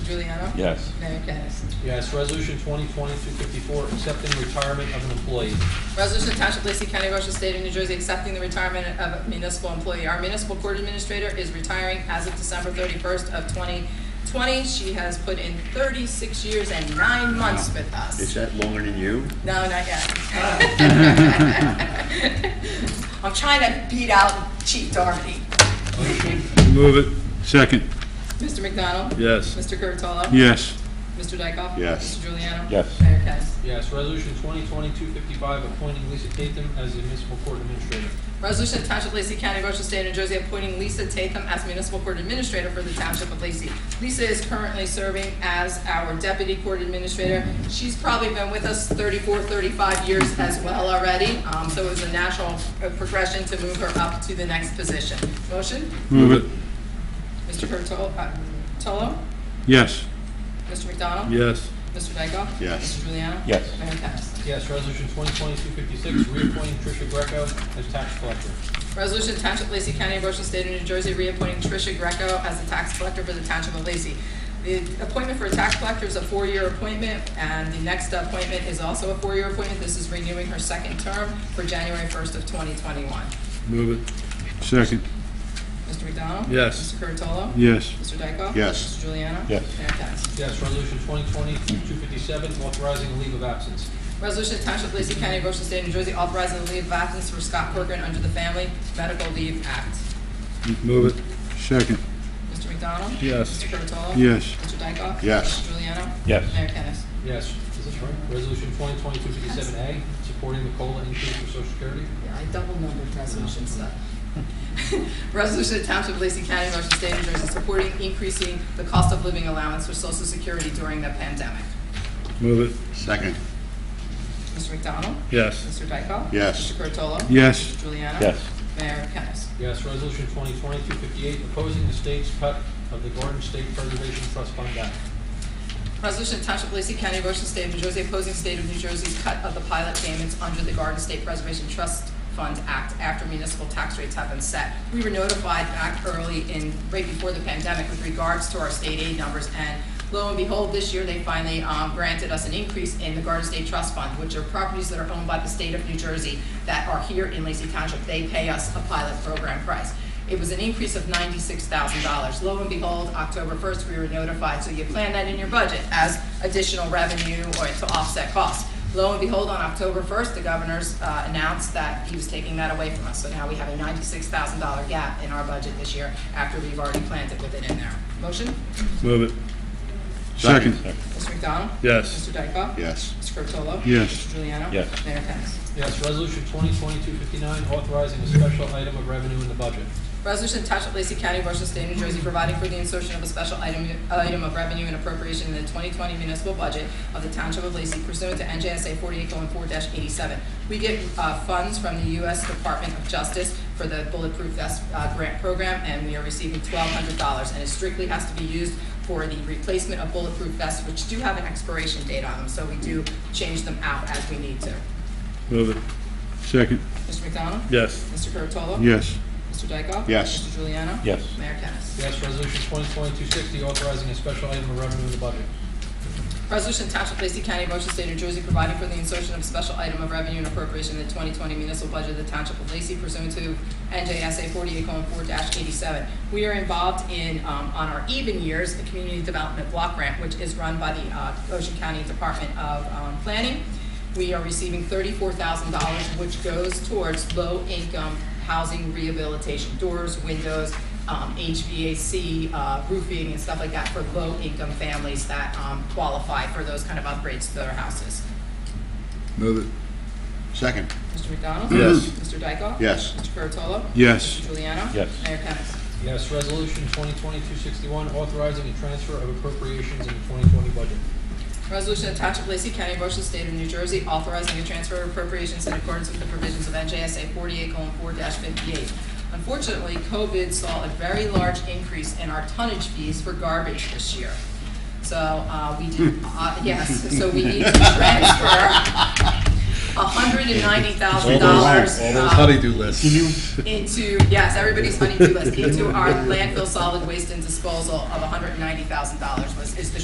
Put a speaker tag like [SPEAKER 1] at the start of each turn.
[SPEAKER 1] Juliano?
[SPEAKER 2] Yes.
[SPEAKER 1] Mayor Kennas.
[SPEAKER 3] Yes, resolution 2020-254, accepting retirement of an employee.
[SPEAKER 1] Resolution to Township of Lacey County, Ocean State of New Jersey, accepting the retirement of a municipal employee. Our municipal court administrator is retiring as of December thirty-first of twenty twenty. She has put in thirty-six years and nine months with
[SPEAKER 4] Is
[SPEAKER 1] us.
[SPEAKER 4] that longer than you?
[SPEAKER 1] No, not yet. I'm trying to beat out Chief Doherty.
[SPEAKER 3] Motion?
[SPEAKER 5] Move it. Second.
[SPEAKER 1] Mr. McDonald?
[SPEAKER 5] Yes.
[SPEAKER 1] Mr. Curatolo?
[SPEAKER 5] Yes.
[SPEAKER 1] Mr. Dykoff?
[SPEAKER 4] Yes.
[SPEAKER 1] Mr. Juliano?
[SPEAKER 2] Yes.
[SPEAKER 1] Mayor Kennas.
[SPEAKER 3] Yes, resolution 2020-255, appointing Lisa Tatum as the municipal court administrator.
[SPEAKER 1] Resolution to Township of Lacey County, Ocean State, New Jersey, appointing Lisa Tatham as Municipal Court Administrator for the Township of Lacey. Lisa is currently serving as our Deputy Court Administrator. She's probably been with us 34, 35 years as well already, um, so it was a natural uh, progression to move her up to the next position. Motion?
[SPEAKER 5] Move it.
[SPEAKER 1] Mr. Curatolo, uh, Tolo?
[SPEAKER 5] Yes.
[SPEAKER 1] Mr. McDonald?
[SPEAKER 5] Yes.
[SPEAKER 1] Mr. Dykoff?
[SPEAKER 4] Yes.
[SPEAKER 1] Mr. Juliano?
[SPEAKER 2] Yes.
[SPEAKER 1] Mayor Kennas.
[SPEAKER 3] Yes, resolution 2020-256, reappointing Tricia Greco as tax collector.
[SPEAKER 1] Resolution to Township of Lacey County, Ocean State of New Jersey, reappointing Tricia Greco as the tax collector for the Township of Lacey. The appointment for a tax collector is a four-year appointment, and the next appointment is also a four-year appointment. This is renewing her second term for January 1st of 2021.
[SPEAKER 5] Move it. Second.
[SPEAKER 1] Mr. McDonald?
[SPEAKER 5] Yes.
[SPEAKER 1] Mr. Curatolo?
[SPEAKER 5] Yes.
[SPEAKER 1] Mr. Dykoff?
[SPEAKER 4] Yes.
[SPEAKER 1] Mr. Juliano?
[SPEAKER 2] Yes.
[SPEAKER 1] Mayor Kennas.
[SPEAKER 3] Yes, resolution 2020-257, authorizing a leave of absence.
[SPEAKER 1] Resolution to Township of Lacey County, Ocean State of New Jersey, authorizing the leave of absence for Scott Corcoran under the Family Medical Leave Act.
[SPEAKER 5] Move it. Second.
[SPEAKER 1] Mr. McDonald?
[SPEAKER 5] Yes.
[SPEAKER 1] Mr. Curatolo?
[SPEAKER 5] Yes.
[SPEAKER 1] Mr. Dykoff?
[SPEAKER 4] Yes.
[SPEAKER 1] Mr. Juliano?
[SPEAKER 2] Yes.
[SPEAKER 1] Mayor Kennas.
[SPEAKER 3] Yes, is this right? Resolution 2020-257A, supporting the COLA increase for social security.
[SPEAKER 1] Yeah, I double numbered resolution stuff. Resolution of Township of Lacey County, Ocean State, New Jersey, supporting increasing the cost of living allowance for social security during the pandemic.
[SPEAKER 5] Move it.
[SPEAKER 4] Second.
[SPEAKER 1] Mr. McDonald?
[SPEAKER 5] Yes.
[SPEAKER 1] Mr. Dykoff?
[SPEAKER 4] Yes.
[SPEAKER 1] Mr. Curatolo?
[SPEAKER 5] Yes.
[SPEAKER 1] Mr. Juliano?
[SPEAKER 2] Yes.
[SPEAKER 1] Mayor Kennas.
[SPEAKER 3] Yes, resolution 2020-258, opposing the state's cut of the Garden State Preservation Trust Fund Act.
[SPEAKER 1] Resolution of Township of Lacey County, Ocean State, New Jersey, opposing State of New Jersey's cut of the pilot payments under the Garden State Preservation Trust Fund Act after municipal tax rates have been set. We were notified back early in, right before the pandemic with regards to our state aid numbers, and lo and behold, this year, they finally um, granted us an increase in the Garden State Trust Fund, which are properties that are owned by the state of New Jersey that are here in Lacey Township. They pay us a pilot program price. It was an increase of ninety-six thousand dollars. Lo and behold, October first, we were notified, so you plan that in your budget as additional revenue or to offset costs. Lo and behold, on October first, the governor's uh, announced that he was taking that away from us. So now we have a ninety-six thousand dollar gap in our budget this year after we've already planned it with it in there. Motion,
[SPEAKER 5] Move it. Second.
[SPEAKER 1] Mr. McDonald?
[SPEAKER 5] Yes.
[SPEAKER 1] Mr. Dykoff?
[SPEAKER 4] Yes.
[SPEAKER 1] Mr. Curatolo?
[SPEAKER 5] Yes.
[SPEAKER 1] Mr. Juliano?
[SPEAKER 2] Yes.
[SPEAKER 1] Mayor Kennas.
[SPEAKER 3] Yes, resolution 2020-259, authorizing a special item of revenue in the budget.
[SPEAKER 1] Resolution to Township of Lacey County, Washington State, New Jersey, providing for the insertion of a special item, item of revenue and appropriation in the 2020 municipal budget of the Township of Lacey pursuant to NJSA 48:4-87. We get uh, funds from the U.S. Department of Justice for the Bulletproof Vest uh, Grant Program, and we are receiving $1,200, and it strictly has to be used for the replacement of bulletproof vests, which do have an expiration date on them, so we do change them out as we need to.
[SPEAKER 5] Move it. Second.
[SPEAKER 1] Mr. McDonald?
[SPEAKER 5] Yes.
[SPEAKER 1] Mr. Curatolo?
[SPEAKER 5] Yes.
[SPEAKER 1] Mr. Dykoff?
[SPEAKER 4] Yes.
[SPEAKER 1] Mr. Juliano?
[SPEAKER 2] Yes.
[SPEAKER 1] Mayor Kennas.
[SPEAKER 3] Yes, resolution 2020-260, authorizing a special item of revenue in the budget.
[SPEAKER 1] Resolution to Township of Lacey County, Ocean State, New Jersey, providing for the insertion of a special item of revenue and appropriation in the 2020 municipal budget of the Township of Lacey pursuant to NJSA 48:4-87. We are involved in, um, on our even years, the Community Development Block Grant, which is run by the uh, Ocean County Department of um, Planning. We are receiving $34,000, which goes towards low-income housing rehabilitation, doors, windows, um, HVAC, uh, roofing and stuff like that for low-income families that, um, qualify for those kind of upgrades to their houses.
[SPEAKER 5] Move it.
[SPEAKER 4] Second.
[SPEAKER 1] Mr. McDonald?
[SPEAKER 5] Yes.
[SPEAKER 1] Mr. Dykoff?
[SPEAKER 4] Yes.
[SPEAKER 1] Mr. Curatolo? Mr.
[SPEAKER 5] Yes.
[SPEAKER 1] Juliano?
[SPEAKER 2] Yes.
[SPEAKER 1] Mayor Kennas.
[SPEAKER 3] Yes, resolution 2020-261, authorizing a transfer of appropriations in the 2020 budget.
[SPEAKER 1] Resolution of Township of Lacey County, Ocean State of New Jersey, authorizing a transfer of appropriations in accordance with the provisions of NJSA 48:4-58. Unfortunately, COVID saw a very large increase in our tonnage fees for garbage this year. So uh, we did, uh, yes, so we need to transfer $190,000. uh,
[SPEAKER 5] do lists.
[SPEAKER 1] into, yes, everybody's honeydew list, into our landfill solid waste and disposal of $190,000 was, is the